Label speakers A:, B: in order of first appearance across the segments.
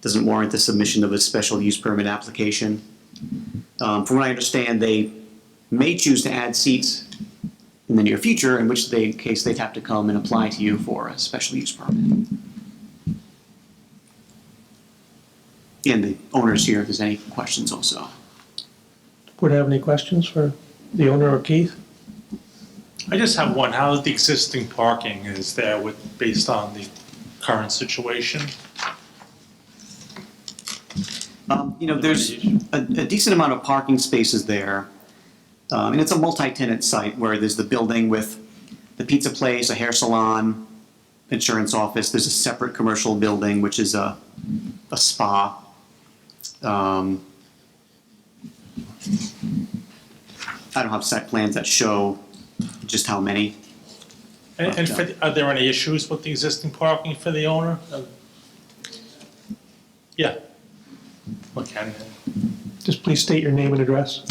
A: doesn't warrant the submission of a special use permit application. Um, From what I understand, they may choose to add seats in the near future, in which they, case they'd have to come and apply to you for a special use permit. And the owner's here if there's any questions also.
B: Would have any questions for the owner or Keith?
C: I just have one. How the existing parking is there with, based on the current situation?
A: Um, You know, there's a a decent amount of parking spaces there. Um, And it's a multi-tenant site where there's the building with the pizza place, a hair salon, insurance office. There's a separate commercial building, which is a, a spa. Um, I don't have site plans that show just how many.
C: And, and for, the- are there any issues with the existing parking for the owner? Uh, Yeah. Look, I
B: Just please state your name and address.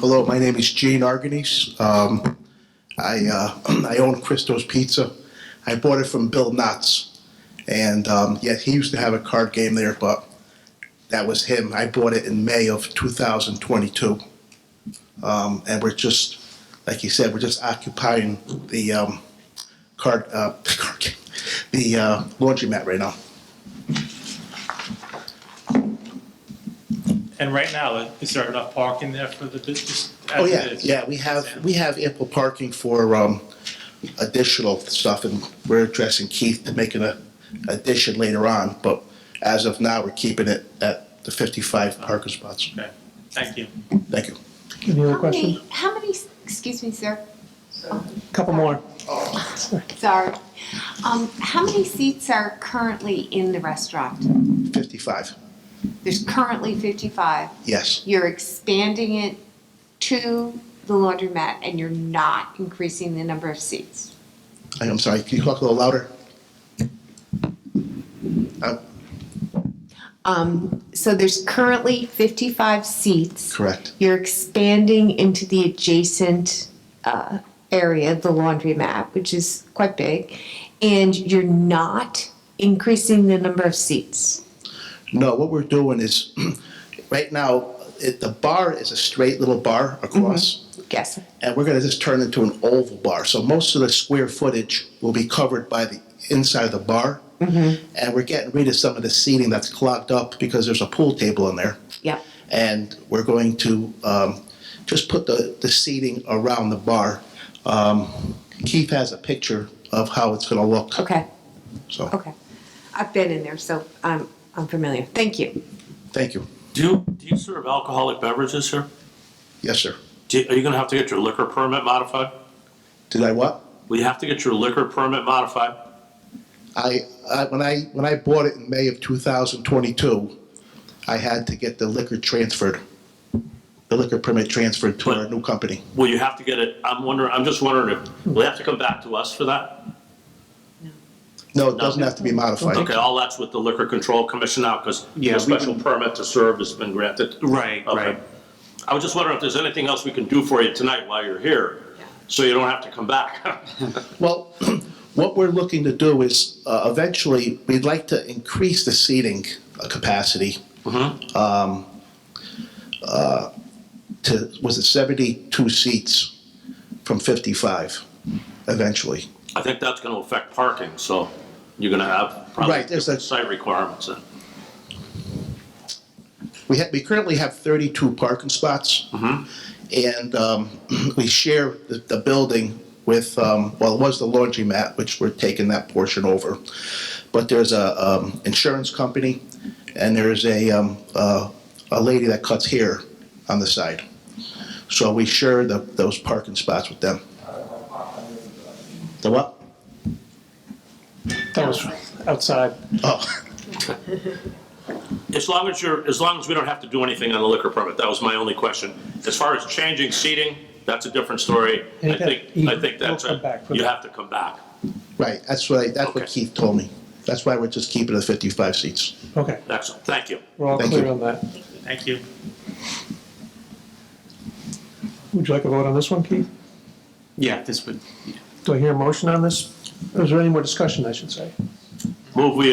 D: Hello, my name is Gene Arganese. Um, I, uh, I own Christo's Pizza. I bought it from Bill Knotts. And um, yeah, he used to have a card game there, but that was him. I bought it in May of 2022. Um, and we're just, like you said, we're just occupying the um, card, uh, card game, the uh, laundromat right now.
C: and right now, is there enough parking there for the business? as
D: Oh,
C: it
D: yeah,
C: is?
D: yeah, we have, we have ample parking for um, additional stuff, and we're addressing Keith to make an addition later on, but as of now, we're keeping it at the 55 parking spots.
C: Okay, thank you.
D: Thank you.
B: Any other
E: How many?
B: questions?
E: How many, excuse me, sir,
B: Couple more.
E: sorry. Um, how many seats are currently in the restaurant?
D: 55,
E: There's currently fifty-five.
D: yes,
E: You're expanding it to the laundromat and you're not increasing the number of seats.
D: I- I'm sorry, can you talk a little louder? Uh,
E: Um, so there's currently fifty-five seats.
D: Correct,
E: You're expanding into the adjacent uh, area, the laundromat, which is quite big, and you're not increasing the number of seats.
D: no, what we're doing is, right now, it- the bar is a straight little bar across,
E: Yes.
D: and we're going to just turn it into an oval bar. So most of the square footage will be covered by the inside of the bar.
E: Mm-hmm.
D: And we're getting rid of some of the seating that's clogged up because there's a pool table in there.
E: Yep.
D: And we're going to um, just put the, the seating around the bar. Um, Keith has a picture of how it's going to look.
E: Okay.
D: So,
E: Okay. I've been in there, so I'm I'm familiar. Thank you.
D: thank you.
F: Do you, do you serve alcoholic beverages here?
D: Yes, sir.
F: Do, are you gonna have to get your liquor permit modified?
D: Did I what?
F: Will you have to get your liquor permit modified?
D: I, I when I when I bought it in May of 2022, I had to get the liquor transferred, the liquor permit transferred to our new company.
F: Will you have to get it, I'm wondering, I'm just wondering if, will you have to come back to us for that?
D: No, it doesn't have to be modified.
F: Okay, all that's with the liquor control commission now, because
A: Yeah,
F: the
A: we
F: special permit to serve has been granted.
A: Right,
F: Okay. I was just wondering if there's anything else we can do for you tonight while you're here, so you don't have to come back.
D: Well, what we're looking to do is uh, eventually we'd like to increase the seating uh, capacity. um, uh, To was it 72 seats from 55 eventually.
F: I think that's gonna affect parking, so you're gonna have probably
D: Right, there's a-
F: different site requirements then.
D: We have, we currently have 32 parking spots. And um, we share the, the building with, um, well, it was the laundromat, which we're taking that portion over. But there's a um, insurance company and there's a, um, uh, a lady that cuts hair on the side. So we share the, those parking spots with them. The what?
B: That was outside.
D: Oh,
F: As long as you're, as long as we don't have to do anything on the liquor permit, that was my only question. As far as changing seating, that's a different story. I
B: Yeah,
F: think,
B: he-
F: I think that's,
B: we'll come back
F: a-
B: for
F: you
B: that.
F: have to come back.
D: right, that's what, I- that's what
F: Okay.
D: Keith told me. That's why we're just keeping the 55 seats.
B: Okay,
F: Excellent, thank you.
B: we're all
D: Thank
B: clear
D: you.
B: on that.
C: Thank you.
B: Would you like a vote on this one, Keith?
A: Yeah, this would, yeah.
B: Do I hear a motion on this? Is there any more discussion, I should say?
F: Move we